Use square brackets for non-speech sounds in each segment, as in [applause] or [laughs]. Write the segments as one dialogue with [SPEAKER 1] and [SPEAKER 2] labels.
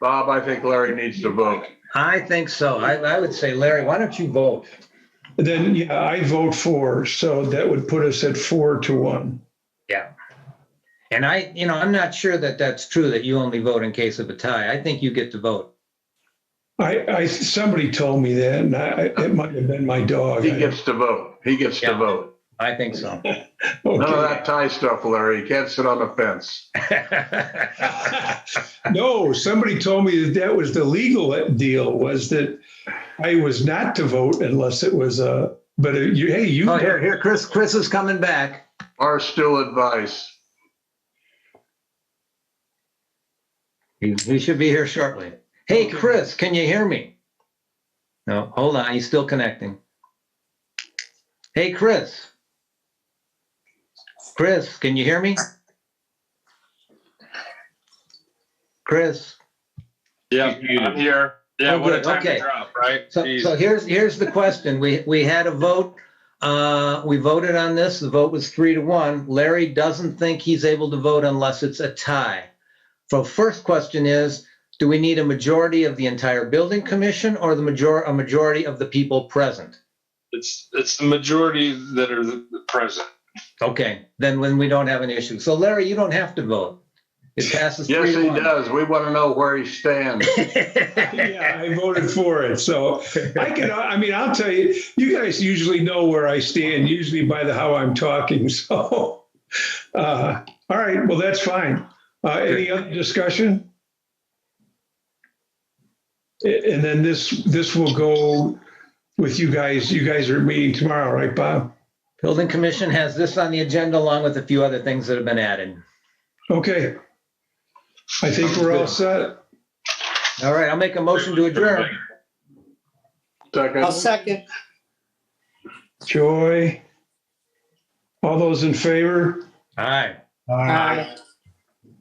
[SPEAKER 1] Bob, I think Larry needs to vote.
[SPEAKER 2] I think so. I, I would say, Larry, why don't you vote?
[SPEAKER 3] Then, yeah, I vote four, so that would put us at four to one.
[SPEAKER 2] And I, you know, I'm not sure that that's true, that you only vote in case of a tie. I think you get to vote.
[SPEAKER 3] I, I, somebody told me that, and I, it might have been my dog.
[SPEAKER 1] He gets to vote. He gets to
[SPEAKER 2] Yeah.
[SPEAKER 1] vote.
[SPEAKER 2] I think so. [laughs]
[SPEAKER 1] None of
[SPEAKER 3] Okay.
[SPEAKER 1] that tie stuff, Larry. You can't sit on the fence.
[SPEAKER 3] [laughs] No, somebody told me that that was the legal deal, was that I was not to vote unless it was a, but uh, you, hey, you.
[SPEAKER 2] Oh, here, here, Chris, Chris is coming back.
[SPEAKER 1] Are still advice.
[SPEAKER 2] He, he should be here shortly. Hey, Chris, can you hear me? No, hold on, he's still connecting. Hey, Chris. Chris, can you hear me? Chris,
[SPEAKER 4] Yeah, I'm here. Yeah,
[SPEAKER 2] Oh,
[SPEAKER 4] what a
[SPEAKER 2] good.
[SPEAKER 4] time
[SPEAKER 2] Okay.
[SPEAKER 4] to drop, right?
[SPEAKER 2] so,
[SPEAKER 4] Jeez.
[SPEAKER 2] so here's, here's the question. We, we had a vote. Uh, we voted on this. The vote was three to one. Larry doesn't think he's able to vote unless it's a tie. So first question is, do we need a majority of the entire building commission or the major, a majority of the people present?
[SPEAKER 4] It's it's the majority that are the the present.
[SPEAKER 2] Okay, then when we don't have an issue. So Larry, you don't have to vote. It passes
[SPEAKER 1] Yes,
[SPEAKER 2] three
[SPEAKER 1] he
[SPEAKER 2] to one.
[SPEAKER 1] does. We want to know where he stands.
[SPEAKER 3] Yeah, I voted for it, so I can, I mean, I'll tell you, you guys usually know where I stand, usually by the, how I'm talking, [laughs] so. uh, All right, well, that's fine. Uh, Any other discussion? A- And then this, this will go with you guys, you guys are meeting tomorrow, right, Bob?
[SPEAKER 2] [laughs] Building commission has this on the agenda along with a few other things that have been added.
[SPEAKER 3] Okay. I think we're all set.
[SPEAKER 2] All right, I'll make a motion to adjourn.
[SPEAKER 1] Second,
[SPEAKER 5] I'll second.
[SPEAKER 3] Joy? All those in favor?
[SPEAKER 2] All right,
[SPEAKER 5] Aye.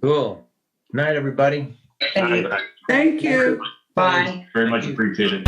[SPEAKER 2] cool. Night, everybody.
[SPEAKER 6] Thank you. Bye.
[SPEAKER 7] Very much appreciated.